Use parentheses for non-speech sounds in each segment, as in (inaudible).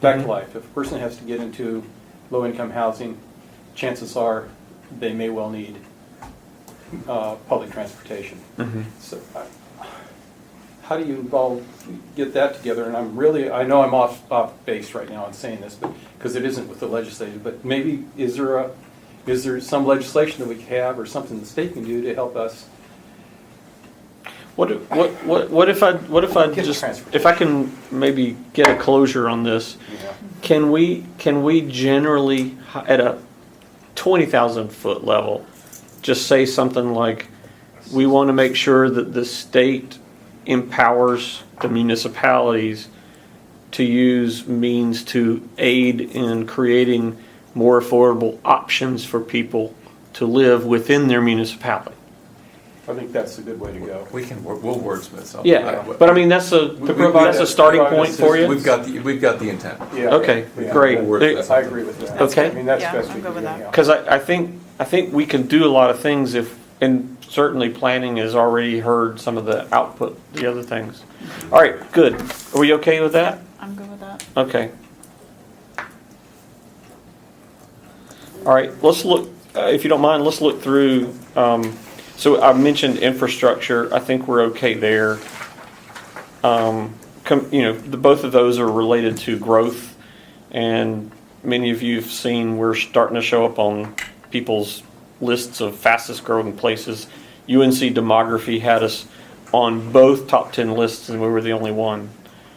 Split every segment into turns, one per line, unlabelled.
Back to life, if a person has to get into low-income housing, chances are they may well need uh, public transportation.
Mm-hmm.
So I- how do you involve, get that together? And I'm really, I know I'm off, off base right now in saying this, but, because it isn't with the legislative, but maybe is there a, is there some legislation that we could have or something the state can do to help us?
What, if- what, what what if I, what if I
Get
just,
transferred.
if I can maybe get a closure on this,
you know?
can we, can we generally, hi- at a twenty thousand foot level, just say something like, we want to make sure that the state empowers the municipalities to use means to aid in creating more affordable options for people to live within their municipality?
I think that's a good way to go.
We can, wor- we'll wordsmith something.
Yeah,
I-
but I mean, that's a,
We- we-
that's a starting point for you?
We've got, the we've got the intent.
Yeah.
Okay,
Yeah.
great.
We'll work that.
I agree with that.
Okay.
I mean, that's
Yeah,
best
I'm
we
good
can do
with that.
anyhow.
Because I, I think, I think we can do a lot of things if, and certainly planning has already heard some of the output, the other things. All right, good. Are we okay with that?
I'm good with that.
Okay. All right, let's look, uh, if you don't mind, let's look through, um, so I mentioned infrastructure, I think we're okay there. Um, com, you know, the, both of those are related to growth, and many of you have seen, we're starting to show up on people's lists of fastest growing places. UNC Demography had us on both top ten lists, and we were the only one.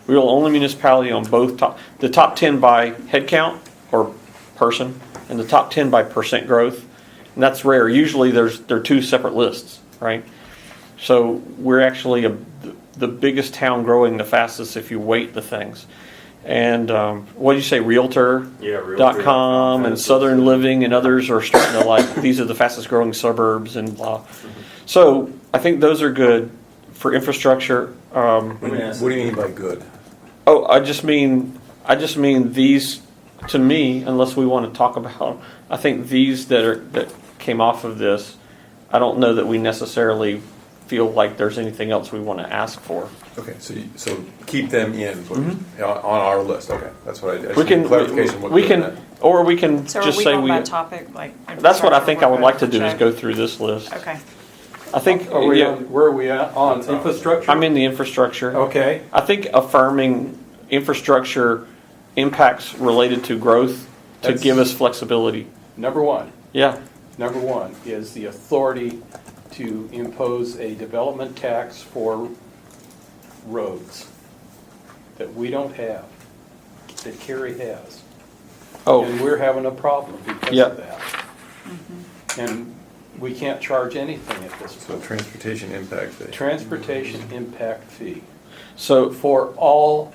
We were the only municipality on both top, the top ten by head count or person, and the top ten by percent growth. And that's rare. Usually, there's, there are two separate lists, right? So we're actually a, the biggest town growing the fastest if you weight the things. And um, what do you say, Realtor?
Yeah, Realtor.
Dot com and Southern Living and others are starting to
(laughs)
like, these are the fastest growing suburbs and blah. So I think those are good for infrastructure. Um,
What do you-
Yes.
what do you mean by good?
Oh, I just mean, I just mean these, to me, unless we want to talk about, I think these that are, that came off of this, I don't know that we necessarily feel like there's anything else we want to ask for.
Okay, so, you- so keep them in, is what you- on on our list, okay, that's what I, I
Mm-hmm.
just
We
need
can,
clarification. what
we
good
can,
meant.
or we can
So are
just
we
say
going
we,
by topic, like?
that's what I
infrastructure,
think I would
we're
like to
good?
do, is
So-
go through this list.
Okay,
I think,
Are we,
yeah,
on- Oh. where are we at on infrastructure?
I'm in the infrastructure.
Okay.
I think affirming infrastructure impacts related to growth to
That's-
give us flexibility.
Number one,
Yeah.
number one is the authority to impose a development tax for roads that we don't have, that Kerry has.
Oh.
And we're having a problem because
Yep.
of that. And we can't charge anything at this
So
point.
transportation impact fee.
Transportation impact fee
So,
for all,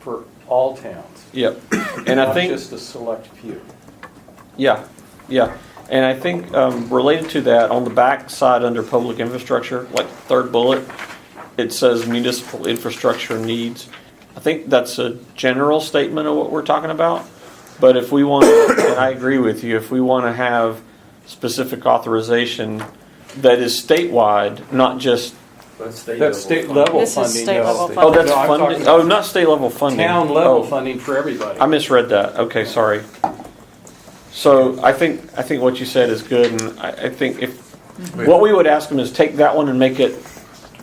for all towns.
yep, and I
Not
think,
just a select few.
yeah, yeah, and I think um, related to that, on the back side under public infrastructure, like third bullet, it says municipal infrastructure needs. I think that's a general statement of what we're talking about, but if we want, and I agree with you, if we want to have specific authorization that is statewide, not just,
That's uh, state level funding.
This is state
though.
level
oh, that's
No, I'm talking
funding, oh, not state level funding.
Town level
Oh.
funding for everybody.
I misread that. Okay, sorry. So I think, I think what you said is good, and I, I think if, what we would ask them is take that one and make it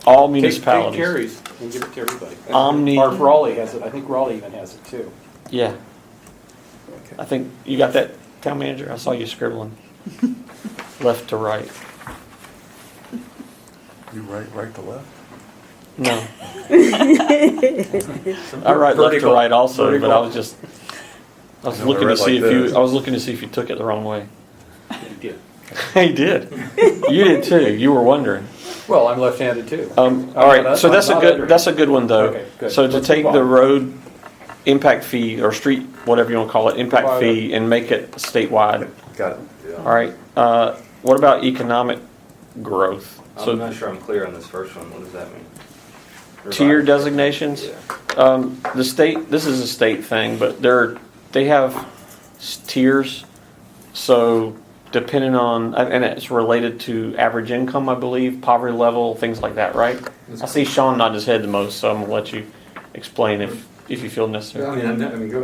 all
Take- Take
municipalities.
Terry's and give it to everybody.
Omni-
Or if Raleigh has it, I think Raleigh even has it too.
Yeah. I think, you got that, town manager? I saw
(laughs)
you scribbling. Left to right.
You right, right to left?
No. I write left to
Vertical.
right also, but I
Vertical.
was just, I was
I know, I
looking to
read
see if
like this.
you, I was looking to see if you took it the wrong way. (laughs)
Yeah.
He did. You did too. You were wondering.
Well, I'm left-handed too.
Um,
I'm
all right,
not-
so
I'm
that's a
not under-
good, that's a good one, though.
Okay, good.
So to
Let's
take
move
the
on.
road impact fee, or street, whatever you want to call it, impact fee, and make it statewide.
Got it.
All right, uh, what about economic growth?
I'm
So
not sure I'm clear on this first one. What does that mean?
tier
Revised.
designations?
Yeah.
Um, the state, this is a state thing, but they're, they have s- tiers. So depending on, and and it's related to average income, I believe, poverty level, things like that, right? I see Sean nod his head the most, so I'm gonna let you explain if, if you feel necessary.
I mean, I mean, go